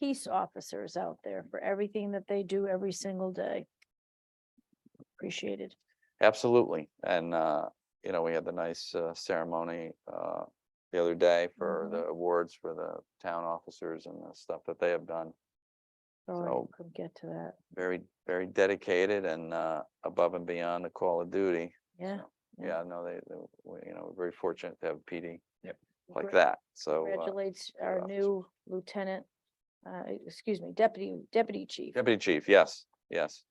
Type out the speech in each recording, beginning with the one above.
peace officers out there for everything that they do every single day. Appreciated. Absolutely. And, uh, you know, we had the nice uh, ceremony, uh, the other day for Mhm. the awards for the town officers and the stuff that they have done. Sorry, So- couldn't get to that. Very, very dedicated and, uh, above and beyond the call of duty. Yeah. Yeah, no, they, they- we- you know, we're very fortunate to have PD like Great. that. So uh, Congratulates good our officer. new lieutenant, uh, excuse me, deputy, deputy chief. Deputy Chief, yes, yes.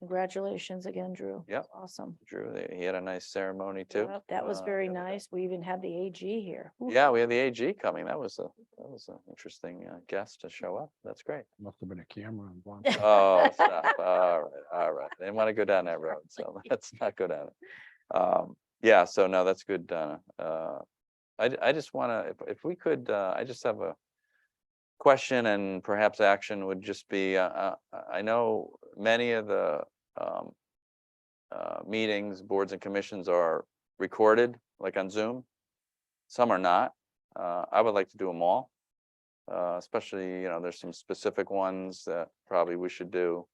Congratulations again, Drew. Yep. Awesome. Drew, they- he had a nice ceremony too. Yep, That was uh, very the other day. nice. We even had the AG here. Ooh, Yeah, we had the AG coming. That was a, that was an interesting uh, guest to show up. That's great. Must have been a camera involved. Oh, stop. All right, all right. They want to go down that road, so let's not go down it. Um, yeah, so no, that's good, Donna. Uh, I, ju- I just want to, if, if we could, uh, I just have a question and perhaps action would just be, uh, uh, I know many of the, um, uh, meetings, boards and commissions are recorded, like on Zoom. Some are not. Uh, I would like to do them all. Uh, especially, you know, there's some specific ones that probably we should do.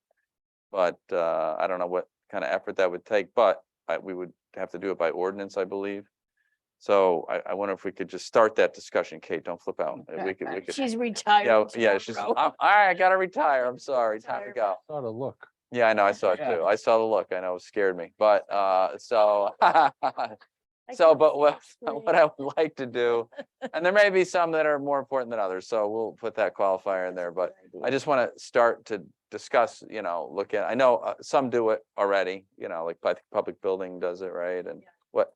But, uh, I don't know what kind of effort that would take, but I, we would have to do it by ordinance, I believe. So I, I wonder if we could just start that discussion. Kate, don't flip out. Uh, We could, we could. She's retired. Yeah, yeah, she's, I'm, tomorrow. all right, I gotta retire. I'm sorry, time to Retirement. go. Thought to look. Yeah, I know, I saw it Yeah. too. I saw the look. I know, it scared me, but, uh, so, I so, can't but what, wait. what I would like to do, and there may be some that are more important than others, so we'll put that qualifier in That's there, a but good I idea. just want to start to discuss, you know, look at, I know, uh, some do it already, you know, like, but public building does it, right, and Yeah. what,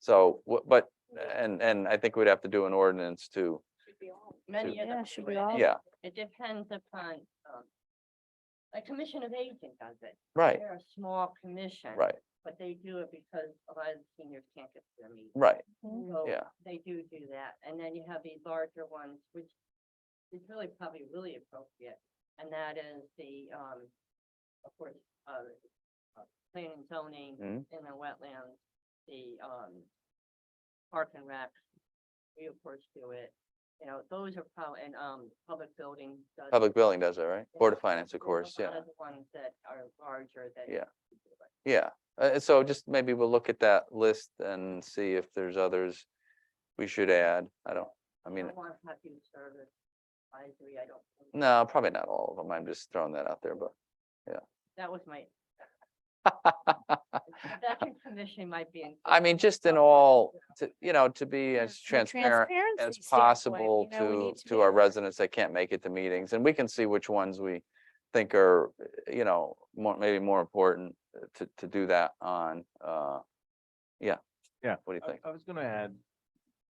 so, what, but, and, and I think we'd have to do an ordinance to, should be all- Many Many of of Yeah, them. should be Oh, all- yeah, It depends upon, um, a commission of aging does it. right, They're a small commission. right, But they do it because a lot of the seniors can't get to their meetings. right, Mhm. So yeah. They do do that. And then you have the larger ones, which is really probably really appropriate. And that is the, um, of course, uh, uh, planning and zoning Mhm. in the wetlands, the, um, park and rec. We of course do it, you know, those are probably, and, um, public building. does it. Public building does it, right? Board of Yeah, Finance, of there's a course, lot yeah. of The ones that are larger than. Yeah. Yeah, uh, so just maybe we'll look at that list and see if there's others we should add. I don't, I mean, want to have you service. I agree, I don't. think- no, probably not all of them. I'm just throwing that out there, but. That was my, that commission might be. in- I mean, just in all, to, you know, to be as From a transparent transparency as standpoint, possible you know, we to, need to be our aware. residents that can't make it to meetings. And we can see which ones we think are, uh, you know, more, maybe more important uh, to, to do that on, uh, yeah. Yeah, What do you uh, I- think? I was gonna add,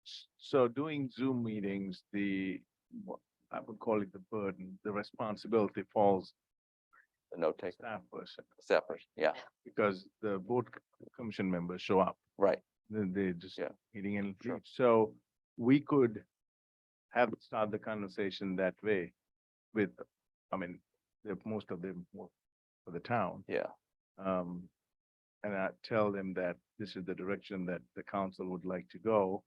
s- so doing Zoom meetings, the, what I would call it the burden, the responsibility falls The note on the taker, staff person, separate, yeah, because the board c- commission members show up, right, then they just Yeah. meeting and Sure. leave. So we could have, start the conversation that way with, I mean, they're- most of them work for the town. yeah, Um, and I tell them that this is the direction that the council would like to go.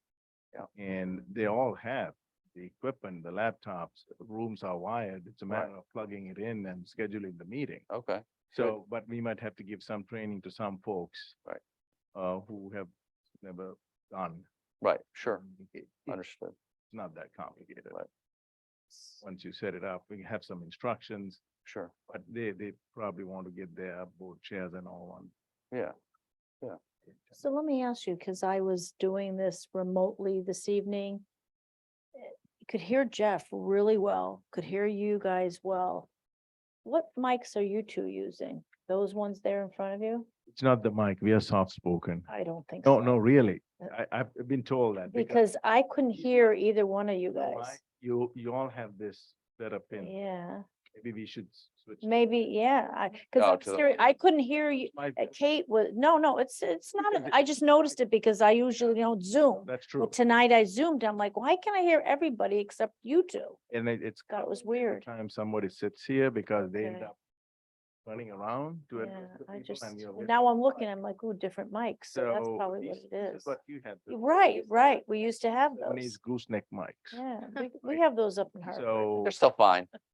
Yeah. And they all have the equipment, the laptops, rooms are wired. It's a Right. matter of plugging it in and scheduling the meeting. okay, Good. So, but we might have to give some training to some folks. Right. Uh, who have never done. right, sure, it- It's understood, not that complicated. Right. Once you set it up, we have some instructions, sure, but they, they probably want to get their board chairs and all on. yeah, So let me ask you, because I was doing this remotely this evening. eh, Could hear Jeff really well, could hear you guys well. What mics are you two using? Those ones there in front of you? It's not the mic, we are soft spoken. I don't think so. No, no, really. Uh, I, I've been told that. Because I couldn't you- hear either one of you you know why? guys. You, you all have this set up in, Yeah, maybe we should s- switch. maybe, yeah, I, Oh, because to I'm the- serious, I couldn't hear you. My- uh, Kate was, no, no, it's, it's not, can a- vi- I just noticed it because I usually don't Zoom. That's Well, true. tonight I Zoomed, I'm like, why can't I hear everybody except you two? And it- it's. God, it was covered every weird. Time somebody sits here because they end Okay. up running around to. Yeah, address the I people just, and you're well, with- now I'm looking, I'm like, ooh, different mics, so that's So probably what this- it this is. What you had. before, Right, these uh, were right, we used to have those, Japanese gooseneck mics. yeah, we, we have those up in Hartford. So they're still fine,